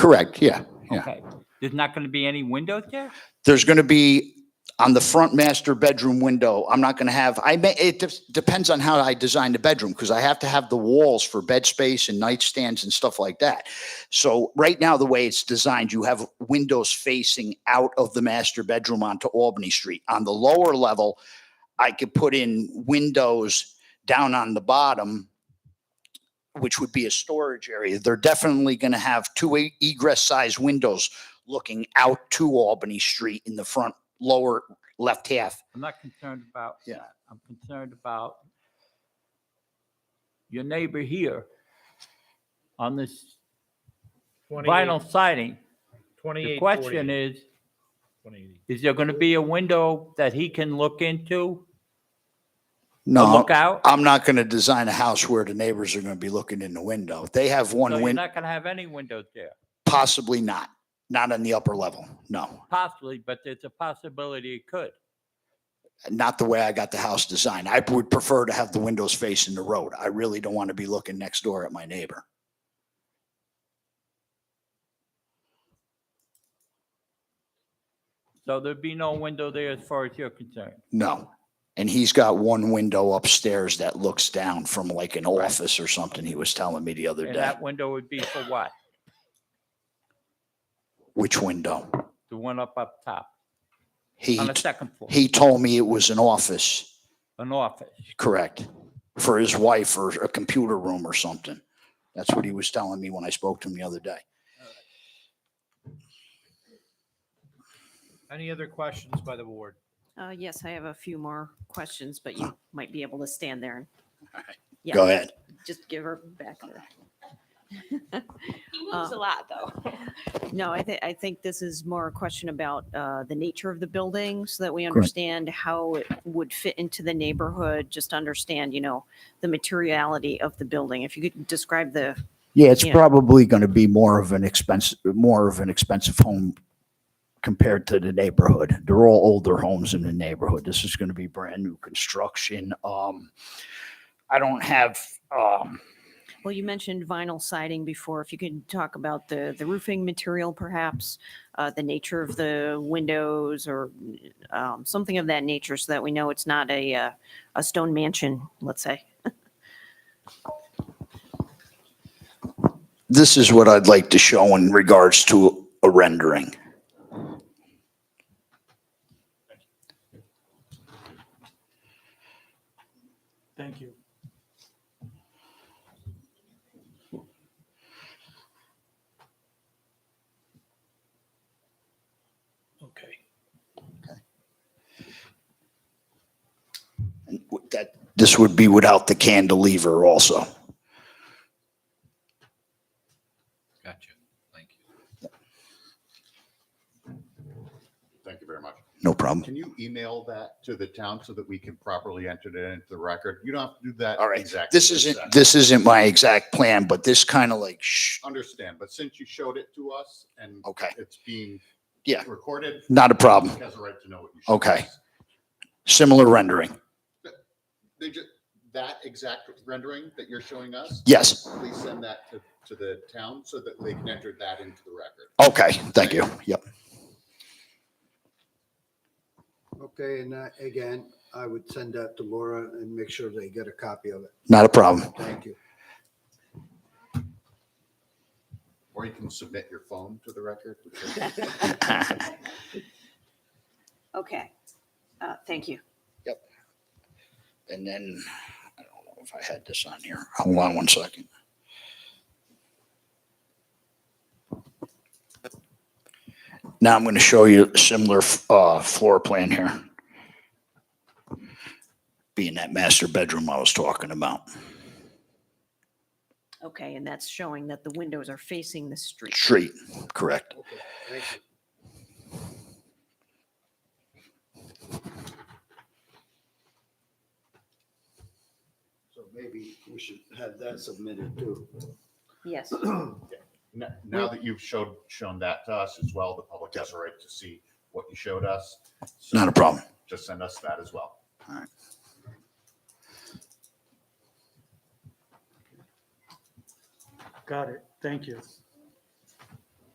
Correct, yeah, yeah. Okay. There's not going to be any windows there? There's going to be on the front master bedroom window, I'm not going to have, I may, it de- depends on how I design the bedroom because I have to have the walls for bed space and nightstands and stuff like that. So right now, the way it's designed, you have windows facing out of the master bedroom onto Albany Street. On the lower level, I could put in windows down on the bottom, which would be a storage area. They're definitely going to have two e- egress size windows looking out to Albany Street in the front lower left half. I'm not concerned about Yeah. that. I'm concerned about your neighbor here on this vinyl siding. The question is, is there going to be a window that he can look into? to No, Look out? I'm not going to design a house where the neighbors are going to be looking in the window. They have So one you're window, not going to have any windows there, possibly not, not on the upper level. No, possibly, but there's a possibility it could. not the way I got the house designed. I would prefer to have the windows facing the road. I really don't want to be looking next door at my neighbor. So there'd be no window there as far as you're concerned. No. And he's got one window upstairs that looks down from like an office or something he was telling me the other And day. that window would be for what? Which window? The one up up top, He, on the t- second floor, he told me it was an office. an office. Correct. For his wife or a computer room or something. That's what he was telling me when I spoke to him the other day. Any other questions by the board? Uh, yes, I have a few more questions, but you might be able to stand there and Yeah. Go ahead. just give her back. her- He Uh, moves a lot, though. No, I think, I think this is more a question about, uh, the nature of the building so that we understand how it would fit into the neighborhood, just understand, you know, the materiality of the building. If you could describe the, Yeah, it's Yeah. probably going to be more of an expensive, more of an expensive home compared to the neighborhood. They're all older homes in the neighborhood. This is going to be brand new construction. Um, I don't have, um, well, you mentioned vinyl siding before. If you could talk about the, the roofing material perhaps, uh, the nature of the windows or, um, something of that nature so that we know it's not a, uh, a stone mansion, let's say. this is what I'd like to show in regards to a rendering. Thank you. Okay. That, this would be without the cantilever also. Gotcha. Thank you. Thank you very much. No problem. Can you email that to the town so that we can properly enter it into the record? You don't have to do that. All right, exactly this this isn't, second. this isn't my exact plan, but this kind of like, shh, Understand, but since you showed it to us and okay, it's being Oh. Yeah. recorded. not a problem. Has a right to know what you showed Okay. us. Similar rendering. They just, that exact rendering that you're showing us, Yes, please send that to, to the town so that they can enter that into the record. okay, thank you. Yep, Okay, and uh, again, I would send that to Laura and make sure they get a copy of it. not a problem. Thank you. Or you can submit your phone to the record. Okay, uh, thank you. And then, I don't know if I had this on here. Hold on one second. Now I'm going to show you a similar uh, floor plan here. Being that master bedroom I was talking about. Okay, and that's showing that the windows are facing the street. Street, correct. Okay, thank you. So maybe we should have that submitted too. Yes. N- Now that you've showed, shown that to us as well, the public has a right to see what you showed us. So Not a problem. Just send us that as well. Got it. Thank you.